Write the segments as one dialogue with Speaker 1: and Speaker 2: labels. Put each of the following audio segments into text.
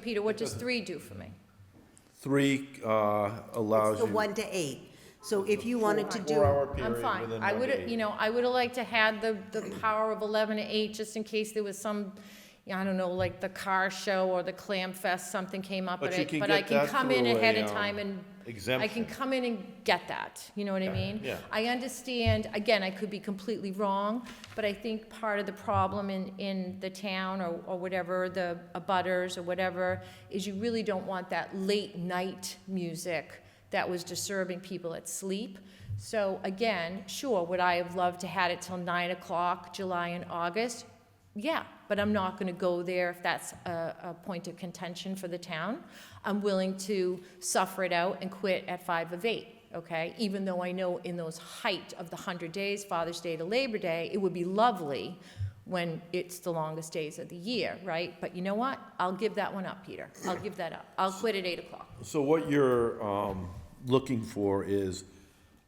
Speaker 1: Peter, what does three do for me?
Speaker 2: Three uh, allows
Speaker 3: It's the
Speaker 2: you.
Speaker 3: one to eight. So if you wanted to do,
Speaker 2: Four-hour
Speaker 1: I'm
Speaker 2: period
Speaker 1: fine.
Speaker 2: within
Speaker 1: I
Speaker 2: one
Speaker 1: would,
Speaker 2: day.
Speaker 1: you know, I would have liked to had the, the power of 11 to 8, just in case there was some, yeah, I don't know, like the car show or the clam fest, something came up.
Speaker 2: But
Speaker 1: and
Speaker 2: you
Speaker 1: I-
Speaker 2: can
Speaker 1: But I
Speaker 2: get
Speaker 1: can
Speaker 2: that
Speaker 1: come in
Speaker 2: through
Speaker 1: ahead
Speaker 2: a,
Speaker 1: of
Speaker 2: um,
Speaker 1: time and, I can
Speaker 2: Exemption.
Speaker 1: come in and get that, you know what I mean?
Speaker 2: yeah.
Speaker 1: I understand, again, I could be completely wrong, but I think part of the problem in, in the town or, or whatever, the abutters or whatever, is you really don't want that late night music that was disturbing people at sleep. So again, sure, would I have loved to had it till nine o'clock, July and August? Yeah, but I'm not gonna go there if that's a, a point of contention for the town. I'm willing to suffer it out and quit at five of eight okay? Even though I know in those height of the 100 days, Father's Day to Labor Day, it would be lovely when it's the longest days of the year, right? But you know what? I'll give that one up, Peter. I'll give that up. I'll quit at 8 o'clock.
Speaker 2: So what you're um, looking for is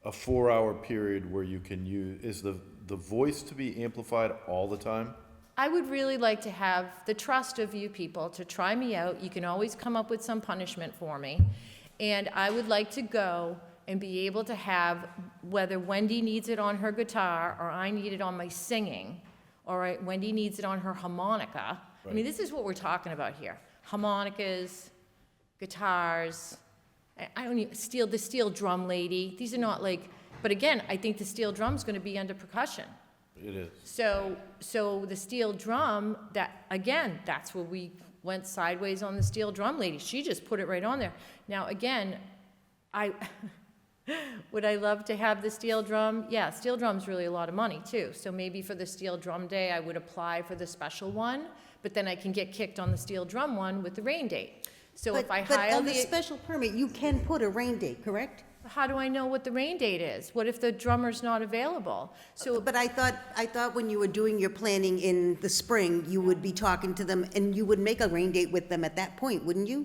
Speaker 2: a four-hour period where you can use, is the, the voice to be amplified all the time?
Speaker 1: I would really like to have the trust of you people to try me out. You can always come up with some punishment for me. And I would like to go and be able to have, whether Wendy needs it on her guitar, or I need it on my singing, or I- Wendy needs it on her harmonica. I mean,
Speaker 2: Right.
Speaker 1: this is what we're talking about here. Harmonicas, guitars, I- I don't even, steel, the steel drum lady, these are not like, but again, I think the steel drum's gonna be under percussion.
Speaker 2: It is.
Speaker 1: So, so the steel drum, that, again, that's where we went sideways on the steel drum lady. She just put it right on there. Now, again, I, would I love to have the steel drum? Yeah, steel drum's really a lot of money too. So maybe for the steel drum day, I would apply for the special one, but then I can get kicked on the steel drum one with the rain date. So
Speaker 3: but,
Speaker 1: if I
Speaker 3: but
Speaker 1: hire
Speaker 3: on the
Speaker 1: the,
Speaker 3: special permit, you can put a rain date, correct?
Speaker 1: how do I know what the rain date is? What if the drummer's not available? So
Speaker 3: But I thought, I thought when you were doing your planning in the spring, you would be talking to them and you would make a rain date with them at that point, wouldn't you?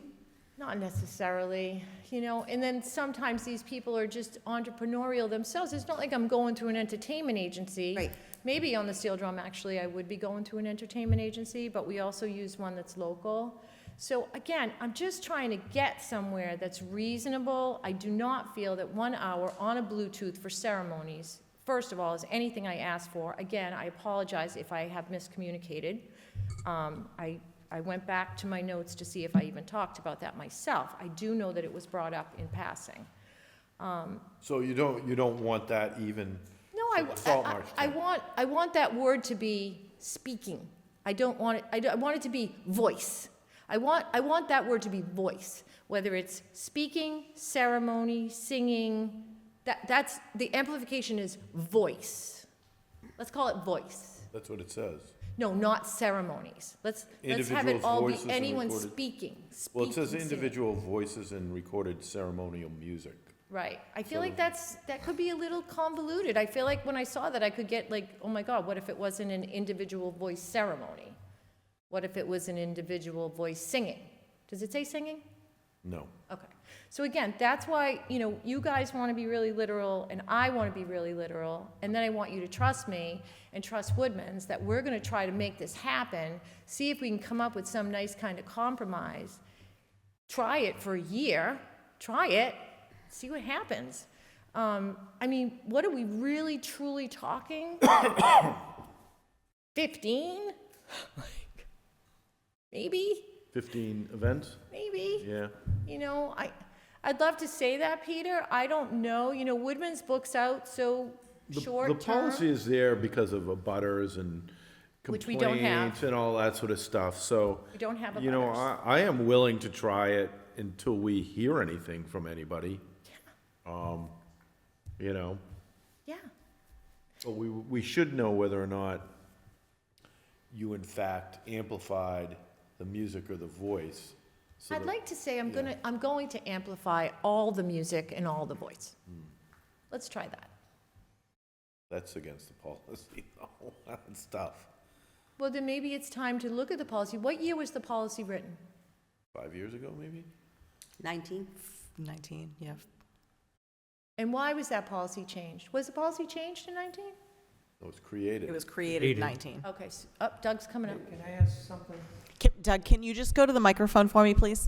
Speaker 1: Not necessarily, you know, and then sometimes these people are just entrepreneurial themselves. It's not like I'm going through an entertainment agency.
Speaker 3: Right.
Speaker 1: Maybe on the steel drum, actually, I would be going through an entertainment agency, but we also use one that's local. So again, I'm just trying to get somewhere that's reasonable. I do not feel that one hour on a Bluetooth for ceremonies, first of all, is anything I ask for. Again, I apologize if I have miscommunicated. Um, I, I went back to my notes to see if I even talked about that myself. I do know that it was brought up in passing.
Speaker 2: So you don't, you don't want that even.
Speaker 1: No, I,
Speaker 2: for the Salt
Speaker 1: I,
Speaker 2: march
Speaker 1: I
Speaker 2: time.
Speaker 1: want, I want that word to be speaking. I don't want it, I, don't- I want it to be voice. I want, I want that word to be voice, whether it's speaking, ceremony, singing, that, that's, the amplification is voice. Let's call it voice.
Speaker 2: That's what it says.
Speaker 1: No, not ceremonies. Let's, let's have it
Speaker 2: Individuals'
Speaker 1: all be
Speaker 2: voices are
Speaker 1: anyone
Speaker 2: recorded.
Speaker 1: speaking, speaking.
Speaker 2: Well, it says
Speaker 1: singing.
Speaker 2: individual voices and recorded ceremonial music.
Speaker 1: Right. I feel like that's, that could be a little convoluted. I feel like when I saw that, I could get like, oh my God, what if it wasn't an individual voice ceremony? What if it was an individual voice singing? Does it say singing?
Speaker 2: No.
Speaker 1: Okay. So again, that's why, you know, you guys want to be really literal and I want to be really literal. And then I want you to trust me and trust Woodman's that we're going to try to make this happen. See if we can come up with some nice kind of compromise. Try it for a year. Try it. See what happens. Um, I mean, what are we really truly talking? 15? Like, maybe?
Speaker 2: Fifteen events?
Speaker 1: Maybe?
Speaker 2: Yeah.
Speaker 1: You know, I, I'd love to say that, Peter. I don't know. You know, Woodman's book's out so
Speaker 2: The-
Speaker 1: short
Speaker 2: The
Speaker 1: term.
Speaker 2: policy is there because of abutters and
Speaker 1: Which we don't have.
Speaker 2: complaints and all that sort of stuff, so.
Speaker 1: We don't have
Speaker 2: You know, I,
Speaker 1: abutters.
Speaker 2: I am willing to try it until we hear anything from anybody. Um, You know,
Speaker 1: Yeah.
Speaker 2: but we, we should know whether or not you in fact amplified the music or the voice. so
Speaker 1: I'd
Speaker 2: that-
Speaker 1: like to say I'm gonna, I'm going to amplify all the music and all the voice.
Speaker 2: Hmm.
Speaker 1: Let's try that.
Speaker 2: That's against the policy, though, that's tough.
Speaker 1: Well, then maybe it's time to look at the policy. What year was the policy written?
Speaker 2: Five years ago, maybe?
Speaker 3: Nineteen?
Speaker 4: 19, yeah.
Speaker 1: And why was that policy changed? Was the policy changed in 19?
Speaker 2: It was created.
Speaker 4: It was created 19.
Speaker 1: Okay, s- oh, Doug's coming up.
Speaker 5: Can I ask something?
Speaker 4: Can- Doug, can you just go to the microphone for me, please?